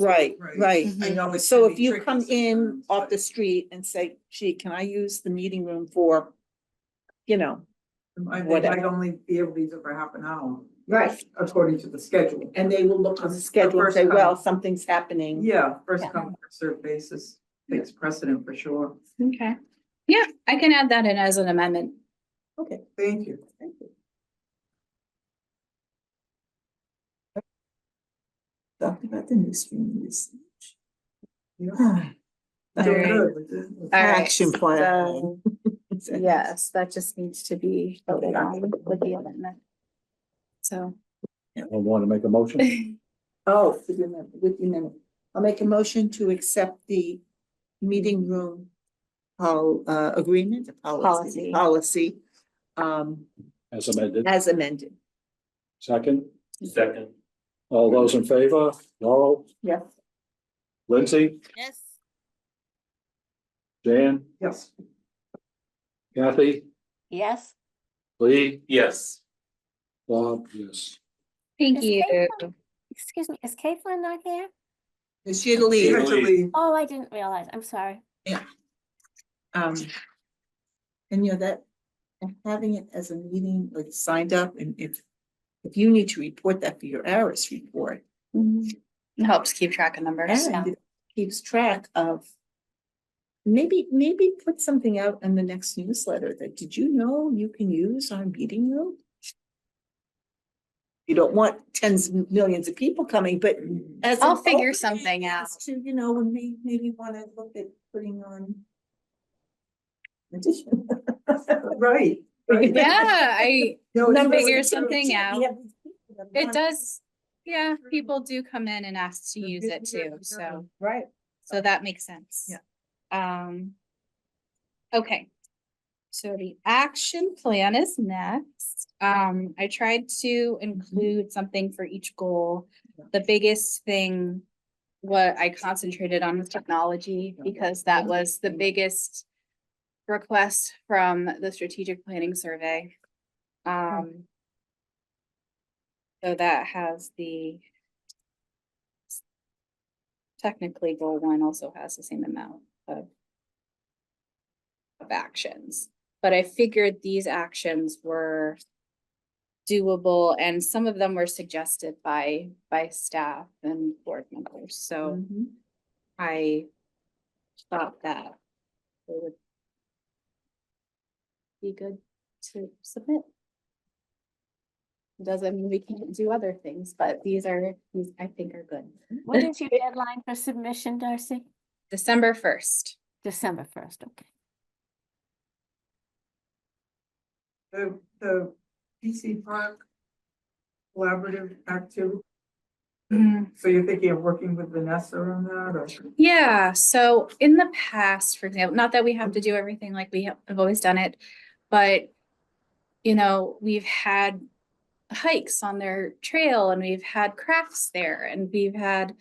Right, Right. Mm-hmm. right. I know it So can if be you tricky come in sometimes, off but- the street and say, gee, can I use the meeting room for, you know, I think I'd whatever. only be able to use it for half an hour, Right. according to the schedule, and they will look on. On a the schedule and first say, come- well, something's happening. Yeah, first Yeah. come, first served basis, takes precedent for sure. Okay, yeah, I can add that in as an amendment. Okay. Thank you. talked about the newsroom usage. Yeah. Ah, Doing Alright. good with this. All right, Action plan. so, Yes, that just needs to be voted on with the amendment. So. I want to make a motion. Oh, with your amendment- with your amendment. I'll make a motion to accept the meeting room pol- uh, agreement, policy, Policy. policy, um, as amended. as amended. Second, Second. all those in favor? Laurel, Yes. Lindsay, Yes. Jan, Yes, Kathy, Yes. Lee, Yes. Bob, yes. Thank Is you. Caitlin- Excuse me, is Caitlin not here? She had to you leave. have to leave. Oh, I didn't realize. I'm sorry. Um, and you know, that, and having it as a meeting, like signed up and if, if you need to report that for your ARIS report. Mhm. It Helps keep track of numbers. And it keeps track of. Maybe, maybe put something out in the next newsletter that, did you know you can use our meeting room? You don't want tens, of millions of people coming, but as. I'll an figure opening something as out. To, you know, when we maybe wanna look at putting on. Addition. Right. right. Yeah, I, No, it's Then really figure true. something out. We have these people that it want does, yeah, people do come in and ask to use it too, so. Right. So that makes sense. Yeah. Um. Okay. So the action plan is next. Um, I tried to include something for each goal. The biggest thing. What I concentrated on was technology because that was the biggest. Request from the strategic planning survey. Um. So that has the technically goal one also has the same amount of of actions, but I figured these actions were doable and some of them were suggested by, by staff and board members, so Mhm. I thought that it would be good to submit. Doesn't mean we can't do other things, but these are, these I think are good. What is your deadline for submission, Darcy? December first. December first, okay. The, the PC Park collaborative activity, so you're thinking of working with Vanessa on that, or? Yeah, so in the past, for example, not that we have to do everything like we have have always done it, but you know, we've had hikes on their trail and we've had crafts there and we've had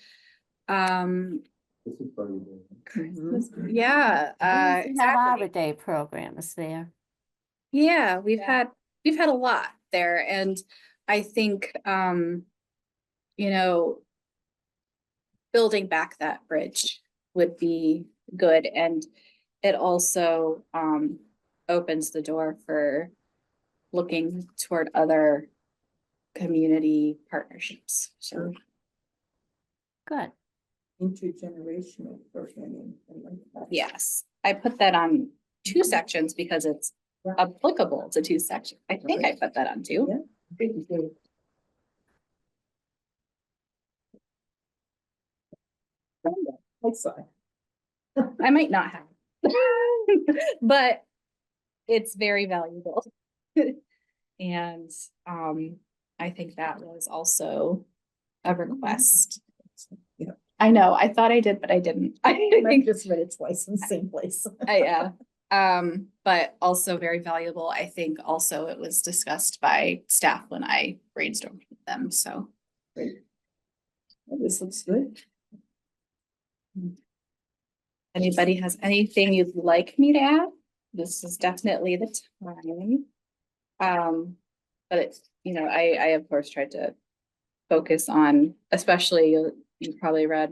um This is very good. Christmas- yeah, uh We have Arbor exactly. Day programs there. Yeah, we've Yeah. had we've had a lot there and I think um you know building back that bridge would be good and it also um opens the door for looking toward other community partnerships. So Good. Intergenerational programming. I like that. yes, I put that on two sections because it's Yeah. applicable to two sections. I think I put that on two. Yeah. I'm sorry. I might not have. But it's very valuable. And um, I think that was also a request. Yeah. I know, I thought I did, but I didn't. I I think, just read it twice in the same place. I, yeah. Um, but also very valuable. I think also it was discussed by staff when I brainstormed with them, so. This looks good. Anybody has anything you'd like me to add? This is definitely the time. Um, but it's, you know, I, I of course tried to focus on, especially you probably read